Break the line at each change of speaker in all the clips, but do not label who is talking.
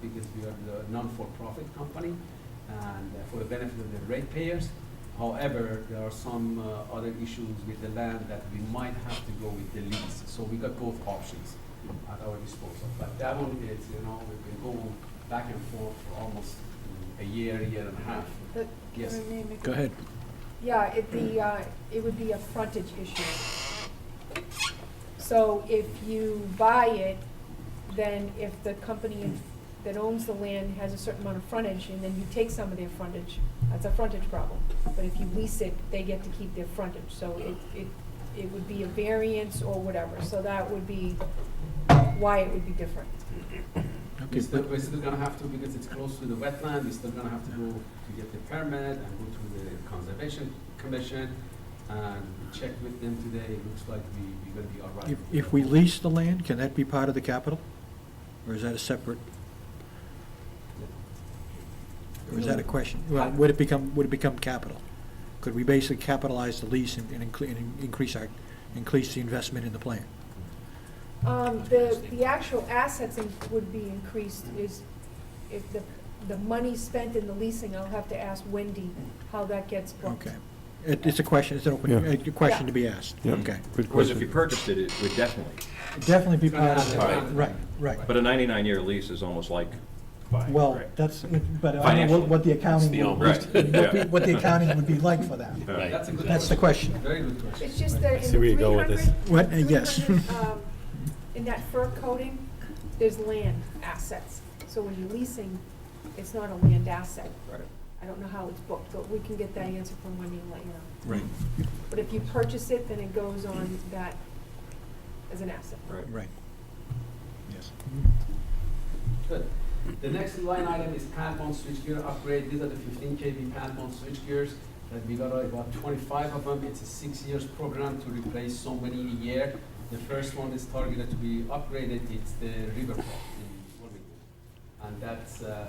because we are the non-for-profit company and uh, for the benefit of the ratepayers. However, there are some uh, other issues with the land that we might have to go with the lease. So we got both options at our disposal. But that one is, you know, we've been going back and forth for almost mm, a year, year and a half.
The-
Yes.
your name again?
Go ahead.
Yeah, it, the, uh, it would be a frontage issue. So if you buy it, then if the company that owns the land has a certain amount of frontage, and then you take some of their frontage, that's a frontage problem. But if you lease it, they get to keep their frontage, so it, it, it would be a variance or whatever, so that would be why it would be different.
Okay,
We're still,
but
we're still gonna have to, because it's close to the wetland, we're still gonna have to go to get the permit and go to the conservation commission. And we checked with them today, it looks like we, we're gonna be all right.
if, if we lease the land, can that be part of the capital? Or is that a separate, or is that a question? Well, would it become, would it become capital? Could we basically capitalize the lease and, and incre- and increase our, increase the investment in the plan?
Um, the, the actual assets in- would be increased is, if the, the money spent in the leasing, I'll have to ask Wendy how that gets booked.
Okay. It, it's a question, it's an open,
Yeah.
a question to be asked.
Yeah.
Okay.
Good
Because if you
question.
purchased it, it would definitely,
Definitely be part of
All
the,
right.
right, right.
but a 99-year lease is almost like buying,
Well,
right?
that's, but I don't know what- what the accounting, would-
Right,
what the-
yeah.
what the accounting would be like for that.
Right.
That's a good
That's the
question.
question.
Very good question.
It's just that in
see where
the
you
three
go with this.
hundred.
What? Uh, yes.
um, In that fur coating, there's land assets, so when you're leasing, it's not a land asset.
Right.
I don't know how it's booked, but we can get that answer from Wendy and let you know.
Right,
But if you purchase it, then it goes on that as an asset.
Right.
right. Yes.
Good. The next line item is pad-mount switchgear upgrade. These are the fifteen kV pad-mount switchgears that we got about twenty-five of them. It's a six years program to replace so many in a year. The first one is targeted to be upgraded. It's the River Park in Wilmington. And that's, uh,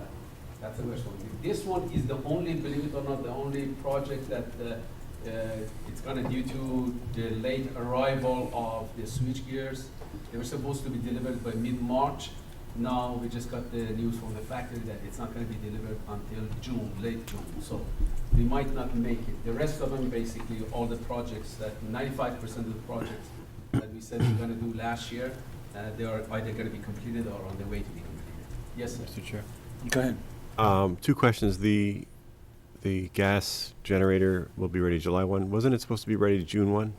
that's the first one. This one is the only, believe it or not, the only project that, uh, uh, it's kind of due to the late arrival of the switchgears. They were supposed to be delivered by mid-March. Now, we just got the news from the factory that it's not gonna be delivered until June, late June, so we might not make it. The rest of them, basically, all the projects that, ninety-five percent of the projects that we said we're gonna do last year, uh, they are either gonna be completed or on the way to be completed. Yes, sir.
Mr. Chair.
Go ahead.
Um, two questions. The, the gas generator will be ready July one. Wasn't it supposed to be ready June one?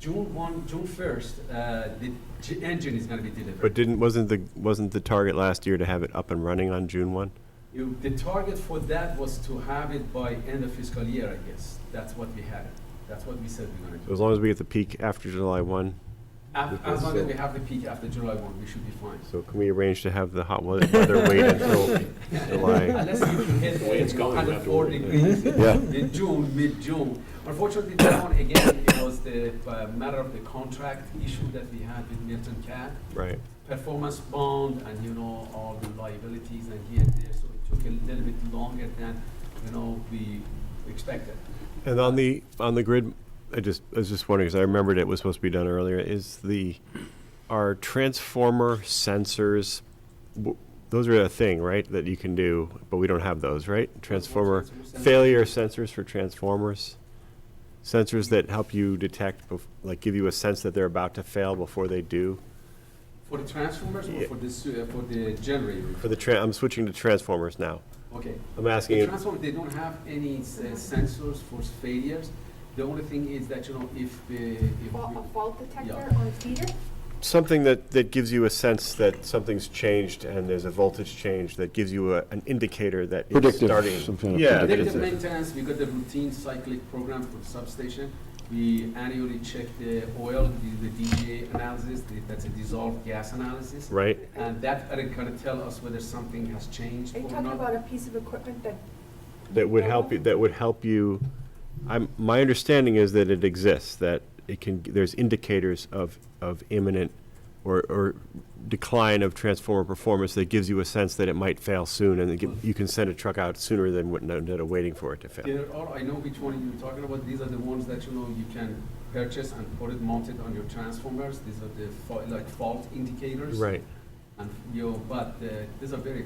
June one, June first, uh, the g- engine is gonna be
But
delivered.
didn't, wasn't the, wasn't the target last year to have it up and running on June one?
You, the target for that was to have it by end of fiscal year, I guess. That's what we had. That's what we said we're gonna
So
do.
as long as we get the peak after July one,
Af-
Because,
As long as
uh,
we have the peak after July one, we should be fine.
so can we arrange to have the hot weather weather wait until July?
Unless you hit it's under four degrees
Yeah.
in June, mid-June. Unfortunately, that one, again, it was the uh, matter of the contract issue that we had with Milton Cat.
Right.
performance bond and, you know, all the liabilities and here and there, so it took a little bit longer than, you know, we expected.
And on the, on the grid, I just, I was just wondering, because I remembered it was supposed to be done earlier, is the, are transformer sensors, w- those are a thing, right, that you can do, but we don't have those, right? Transformer, failure sensors for transformers? Sensors that help you detect, bef- like give you a sense that they're about to fail before they do?
For the transformers or
Yeah.
for the, su- uh, for the generator?
For the, tran- I'm switching to transformers now.
Okay.
I'm asking,
The
you-
transformer, they don't have any s- uh, sensors for failures. The only thing is that, you know, if the, if
Fa- A
we-
fault detector
Yeah.
on a feeder?
something that, that gives you a sense that something's changed and there's a voltage change that gives you a, an indicator that it's
Predictive,
starting.
some kind of
Yeah,
predictive.
Predictive
it's-
maintenance, we got the routine cyclic program for the substation. We annually check the oil, the the DGA analysis, the- that's a dissolved gas analysis.
Right?
And that are gonna tell us whether something has changed
Are you
or
talking
not.
about a piece of equipment that,
That would help you, that would help you, I'm, my understanding is that it exists, that it can, there's indicators of, of imminent or, or decline of transformer performance that gives you a sense that it might fail soon and it gi- you can send a truck out sooner than what, instead of waiting for it to fail.
There are, I know which one you're talking about, these are the ones that, you know, you can purchase and put it mounted on your transformers. These are the, fa- like fault indicators.
Right.
and you, but uh, these are very